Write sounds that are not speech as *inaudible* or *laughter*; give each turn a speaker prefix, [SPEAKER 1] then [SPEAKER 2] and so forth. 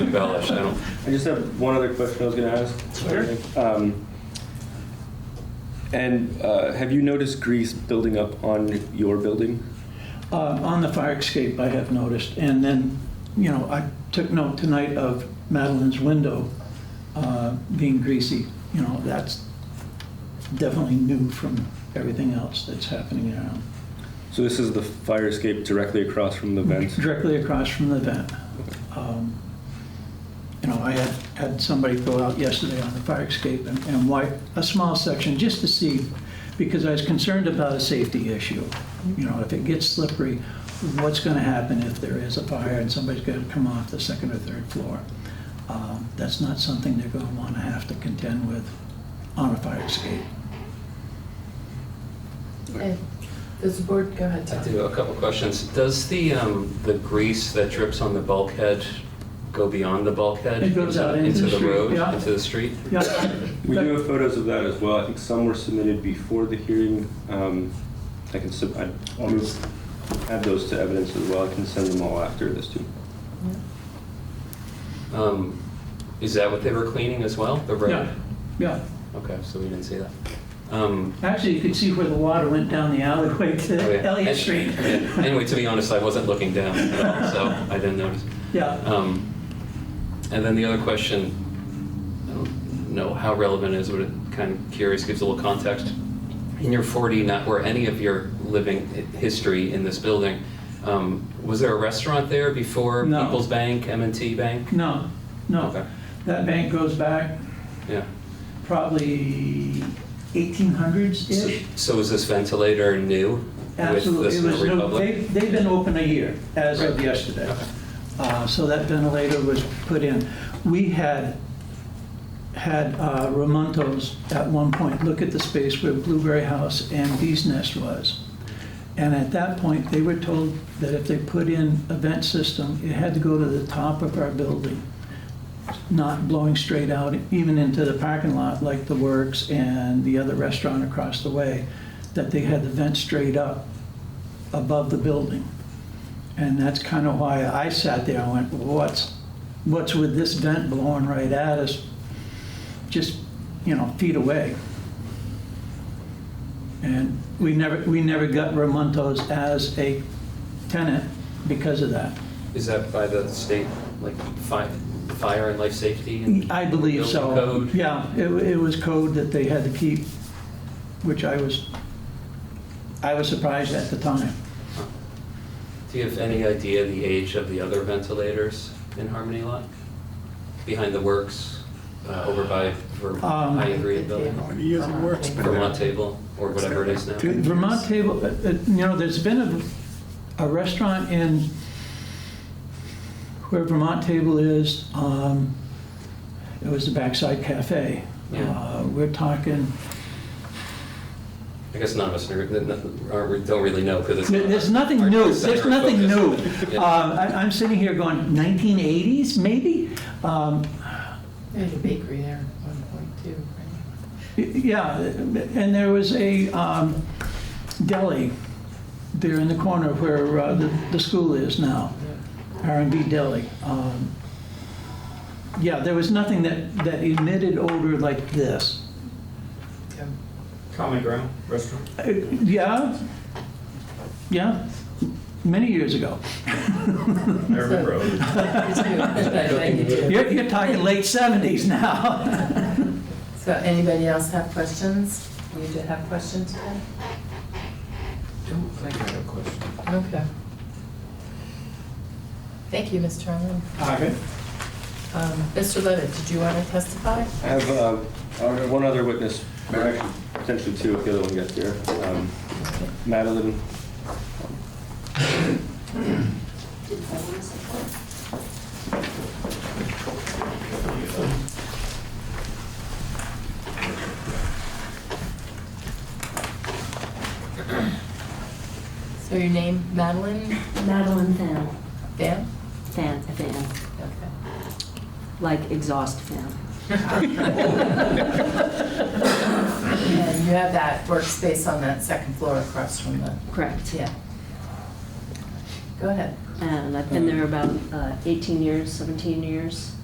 [SPEAKER 1] embellish. I don't.
[SPEAKER 2] I just have one other question I was going to ask. Um, and uh, have you noticed grease building up on your building?
[SPEAKER 3] Uh, On the fire escape, I have noticed, and then, you know, I took note tonight of Madeline's window uh, being greasy. You know, that's definitely new from everything else that's happening around.
[SPEAKER 2] So this is the fire escape directly across from the vent.
[SPEAKER 3] Directly across from the vent. Um, You know, I had, had somebody go out yesterday on the fire escape and, and wipe a small section just to see, because I was concerned about a safety issue. You know, if it gets slippery, what's gonna happen if there is a fire and somebody's gonna come off the second or third floor? Um, That's not something they're gonna wanna have to contend with on a fire escape.
[SPEAKER 4] Okay. Does the board, go ahead,
[SPEAKER 1] I
[SPEAKER 4] Tom.
[SPEAKER 1] do have a couple questions. Does the um, the grease that drips on the bulkhead go beyond the bulkhead?
[SPEAKER 3] It goes out into the street,
[SPEAKER 1] road,
[SPEAKER 3] yeah.
[SPEAKER 1] into the street.
[SPEAKER 3] Yeah,
[SPEAKER 2] We do have photos of that as well. I think some were submitted before the hearing. Um, I can sub- I add those to evidence as well. I can send them all after this too.
[SPEAKER 1] Um, is that what they were cleaning as well? The road.
[SPEAKER 3] yeah, yeah.
[SPEAKER 1] Okay, so we didn't see that. Um,
[SPEAKER 3] Actually, you could see where the water went down the alleyway
[SPEAKER 1] oh, yeah.
[SPEAKER 3] to Elliott
[SPEAKER 1] *laughs*
[SPEAKER 3] Street.
[SPEAKER 1] Yeah. Anyway, to be honest, I wasn't looking down at all, so I didn't notice.
[SPEAKER 3] Yeah,
[SPEAKER 1] Um, And then the other question, I don't know how relevant it is, but it kind of curious, gives a little context. In your 40, not where any of your living hi- history in this building, um, was there a restaurant there before
[SPEAKER 3] No.
[SPEAKER 1] People's Bank, m and T Bank?
[SPEAKER 3] no,
[SPEAKER 1] Okay.
[SPEAKER 3] no. That bank goes back
[SPEAKER 1] Yeah.
[SPEAKER 3] probably 1800s-ish.
[SPEAKER 1] So is this ventilator new with
[SPEAKER 3] Absolutely.
[SPEAKER 1] the
[SPEAKER 3] It
[SPEAKER 1] Snow
[SPEAKER 3] was no- they-
[SPEAKER 1] Republic?
[SPEAKER 3] They've been open a year as of
[SPEAKER 1] Right.
[SPEAKER 3] yesterday.
[SPEAKER 1] Okay.
[SPEAKER 3] Uh, So that ventilator was put in. We had, had uh, Ramontos at one point look at the space where Blueberry House and Bee's Nest was. And at that point, they were told that if they put in a vent system, it had to go to the top of our building, not blowing straight out even into the parking lot like The Works and the other restaurant across the way, that they had the vent straight up above the building. And that's kind of why I sat there and went, what's, what's with this vent blowing right at us, just, you know, feet away? And we never, we never got Ramontos as a tenant because of that.
[SPEAKER 1] Is that by the state, like fi- fire and life safety? and
[SPEAKER 3] I believe so.
[SPEAKER 1] building code?
[SPEAKER 3] Yeah, it, it was code that they had to keep, which I was, I was surprised at the time.
[SPEAKER 1] Do you have any idea the age of the other ventilators in Harmony Lot? Behind the works, uh, over by Ver-
[SPEAKER 3] Um,
[SPEAKER 1] High Ingredient Building,
[SPEAKER 4] How
[SPEAKER 5] many years it works, but-
[SPEAKER 1] Vermont Table, or whatever it is now?
[SPEAKER 5] Two.
[SPEAKER 3] Vermont Table, uh, uh, you know, there's been a, a restaurant in where Vermont Table is, um, it was the Backside Cafe.
[SPEAKER 1] Yeah.
[SPEAKER 3] Uh, We're talking,
[SPEAKER 1] I guess none of us are- n- n- aren't- don't really know because it's.
[SPEAKER 3] there-
[SPEAKER 1] not
[SPEAKER 3] there's nothing
[SPEAKER 1] our
[SPEAKER 3] new,
[SPEAKER 1] center
[SPEAKER 3] there's
[SPEAKER 1] of
[SPEAKER 3] nothing new.
[SPEAKER 1] focus.
[SPEAKER 3] Uh,
[SPEAKER 1] *laughs* Yeah.
[SPEAKER 3] I- I'm sitting here going, 1980s, maybe? Um,
[SPEAKER 4] There's a bakery there at one point too, right?
[SPEAKER 3] Yeah, and there was a um, deli there in the corner where uh, the the school is now, r and B Deli. Um, Yeah, there was nothing that that emitted odor like this.
[SPEAKER 4] Yeah.
[SPEAKER 6] Common Ground *laughs* Restaurant.
[SPEAKER 3] Uh, Yeah, yeah, many years ago.
[SPEAKER 6] I remember. it was-
[SPEAKER 4] It's
[SPEAKER 1] *laughs*
[SPEAKER 4] new, it's about 92.
[SPEAKER 3] You're you're talking late 70s now. *laughs*
[SPEAKER 4] So anybody else have questions? You did have questions today?
[SPEAKER 6] Don't think I have a question.
[SPEAKER 4] Okay. Thank you, Mr. Arlen.
[SPEAKER 3] Okay.
[SPEAKER 4] Um, Mr. Levitt, did you want to testify?
[SPEAKER 2] I have uh, I have one other witness, or actually potentially two if the other one gets here. Um, Madeline.
[SPEAKER 4] So your name, Madeline
[SPEAKER 7] Madeline fan,
[SPEAKER 4] Van?
[SPEAKER 7] fan, fan,
[SPEAKER 4] Okay.
[SPEAKER 7] like exhaust fan.
[SPEAKER 4] And you have that workspace on that second floor across from the,
[SPEAKER 7] Correct.
[SPEAKER 4] yeah. Go ahead.
[SPEAKER 7] And I've been there about uh, 18 years, 17 years.